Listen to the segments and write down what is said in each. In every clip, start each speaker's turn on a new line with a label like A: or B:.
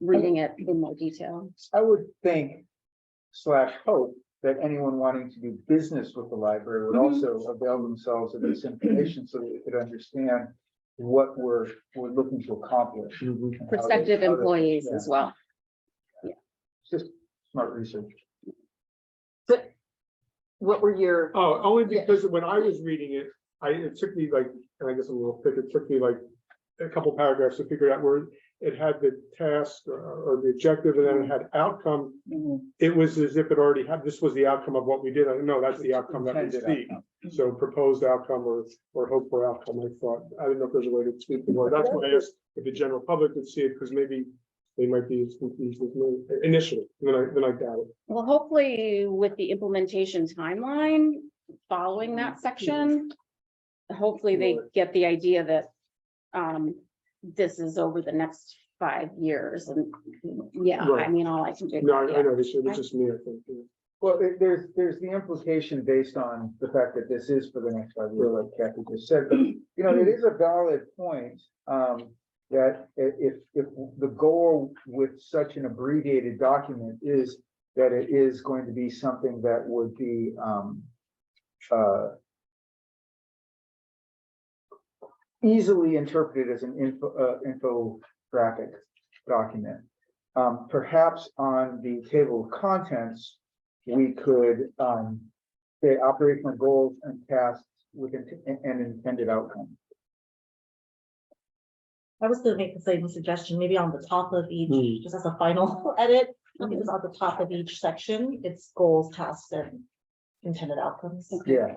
A: reading it in more detail.
B: I would think slash hope that anyone wanting to do business with the library would
A: Mhm.
B: also avail themselves of this information so that they could understand what we're, we're looking to accomplish. and
C: Oh,
B: how they-
A: Prospective
B: how they-
A: employees
B: yeah,
A: as well.
B: it's Just smart research.
D: What were your,
C: Oh, only
D: Yeah.
C: because when I was reading it, I, it took me like, and I guess a little thick, it took me like a couple paragraphs to figure out where it had the task or- or the objective and then it had outcome. It was as if it already had, this was the outcome of what we did. I know that's the outcome that we
B: Intended
C: see.
B: outcome.
C: So proposed outcome or, or hope for outcome, I thought. I don't know if there's a way to speak the word. That's why I asked if the general public would see it, because maybe they might be as confused as me initially, then I, then I got it.
A: Well, hopefully with the implementation timeline, following that section. Hopefully they get the idea that, um, this is over the next five years and, yeah, I
C: Right.
A: mean, all I can do.
C: No, I I
A: yeah.
C: know, this is just me, I think. yeah.
B: Well, there- there's, there's the implication based on the fact that this is for the next five years, like Kathy just said, but, you know, it is a valid point. Um, that i- if, if the goal with such an abbreviated document is that it is going to be something that would be, um, uh, easily interpreted as an info, uh, infographic document. Um, perhaps on the table of contents, we could, um, say operational goals and tasks with an, an intended outcome.
E: I was gonna make the same suggestion, maybe on the top of
C: Hmm.
E: each, just as a final edit,
B: Hmm.
E: it was on the top of each section, it's goals, tasks, and intended outcomes.
B: Yeah,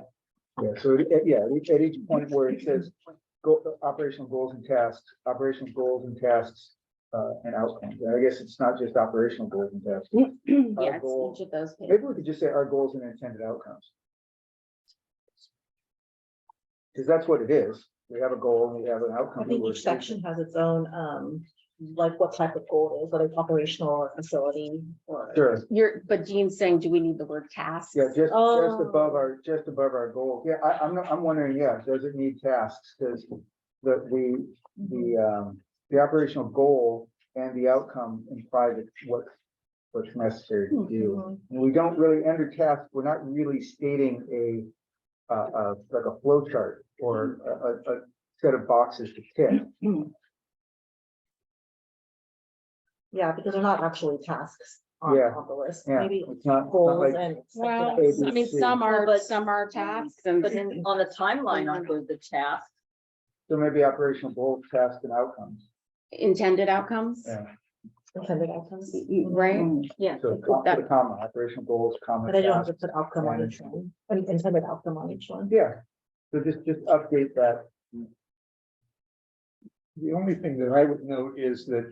B: yeah, so, at- yeah, at each- at each point where it says, go, operational goals and tasks, operational goals and tasks, uh, and outcomes, And I guess it's not just operational goals and tasks.
A: Yeah,
B: goal-
A: it's each of those. pages.
B: Maybe we could just say our goals and intended outcomes. Because that's what it is, we have a goal and we have an outcome.
E: I
B: that
E: think
B: we're
E: each section has its own, um, like what type of goal it is, whether it's operational or facility or.
B: chasing. Sure.
A: You're, but Jean's saying, do we need the word tasks?
B: Yeah, just, just
E: Oh.
B: above our, just above our goal. Yeah, I, I'm, not- I'm wondering, yeah, does it need tasks? Does the, the,
E: Mm-hmm.
B: the, um, the operational goal and the outcome imply that what, what's necessary to do?
E: Mhm.
B: And we don't really, under task, we're not really stating a, uh, uh, like a flow chart or a, a, a set of boxes to tick.
E: Yeah, because they're not actually tasks on,
B: Yeah,
E: on the list,
B: Yeah,
E: maybe
B: it's not, it's not
E: goals
B: like,
E: and.
A: Well,
E: expected
A: I
E: outcomes.
A: mean,
B: ABC.
A: some
D: Well,
A: are,
D: but-
A: some are tasks and.
D: but
B: Mm-hmm.
D: then on the timeline, aren't those the tasks?
B: so maybe operational goals, tasks and outcomes.
A: intended outcomes,
B: Yeah.
E: Intended outcomes,
B: Mm-hmm.
A: right? Yeah.
B: So
A: That-
B: comma, comma, operational goals, comma.
E: but I don't have
B: tasks.
E: to put outcome on each one, I mean, intended outcome on each one.
B: Yeah, so just, just update that.
F: The only thing that I would note is that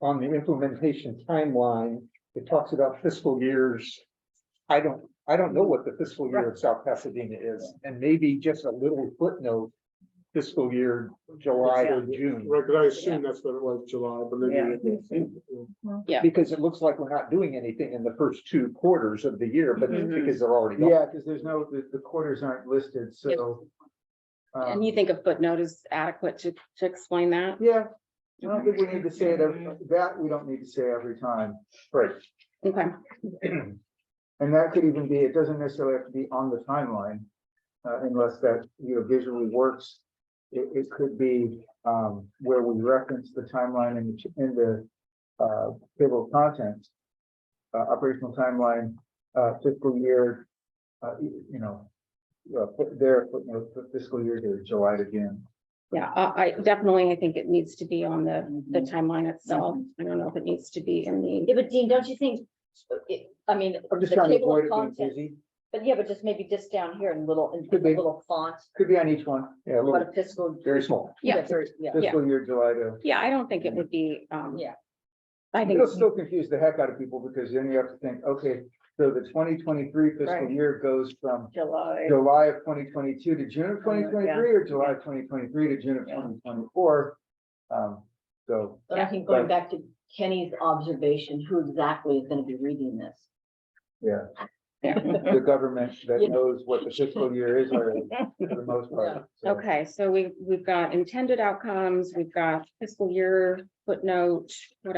F: on the implementation timeline, it talks about fiscal years. I don't, I don't know what the fiscal year of South Pasadena is, and maybe just a little footnote. Fiscal year July or June,
C: Right, because I assume that's what it was, July, but maybe.
A: Yeah.
F: because it looks like we're not doing anything in the first two quarters of the year, but that's
C: Mhm.
F: because they're already. gone.
B: Yeah, because there's no, the, the quarters aren't listed, so. um,
A: And you think a footnote is adequate to, to explain that?
B: Yeah, I don't think we need to say it, every- that we don't need to say every time. Right.
A: Okay,
B: And that could even be, it doesn't necessarily have to be on the timeline, uh, unless that, you know, visually works. It, it could be, um, where we reference the timeline in the, ch- in the, uh, table of contents. Uh, operational timeline, uh, fiscal year, uh, y- you know, uh, put there, footnote, fiscal year to July again.
A: yeah, I, I definitely, I think it needs to be on the, the timeline itself. I don't know if it needs to be in the,
G: Yeah, but Dean, don't you think, it- I mean,
B: I'm just
G: The
B: trying to
G: table of
B: avoid it being
G: contents.
B: busy.
G: but yeah, but just maybe just down here in little, in
B: Could be.
G: a little font,
B: Could be on each one,
F: Yeah, a
G: but
F: little,
G: a fiscal.
F: very small.
A: yeah,
G: very- Yeah,
B: fiscal year July to.
A: yeah, I don't think it would be, um.
G: Yeah.
A: I think,
B: It'll still confuse the heck out of people because then you have to think, okay, so the twenty twenty-three fiscal
G: Right.
B: year goes from
G: July.
B: July of twenty twenty-two to June of twenty twenty-three or July of twenty twenty-three to June of
G: Yeah.
B: twenty twenty-four. Um, so,
G: But I think going back to Kenny's observation, who exactly is gonna be reading this?
B: yeah,
A: yeah.
B: the government that
G: Yeah.
B: knows what the fiscal year is already, for the most part. so.
A: okay, so we, we've got intended outcomes, we've got fiscal year footnote, what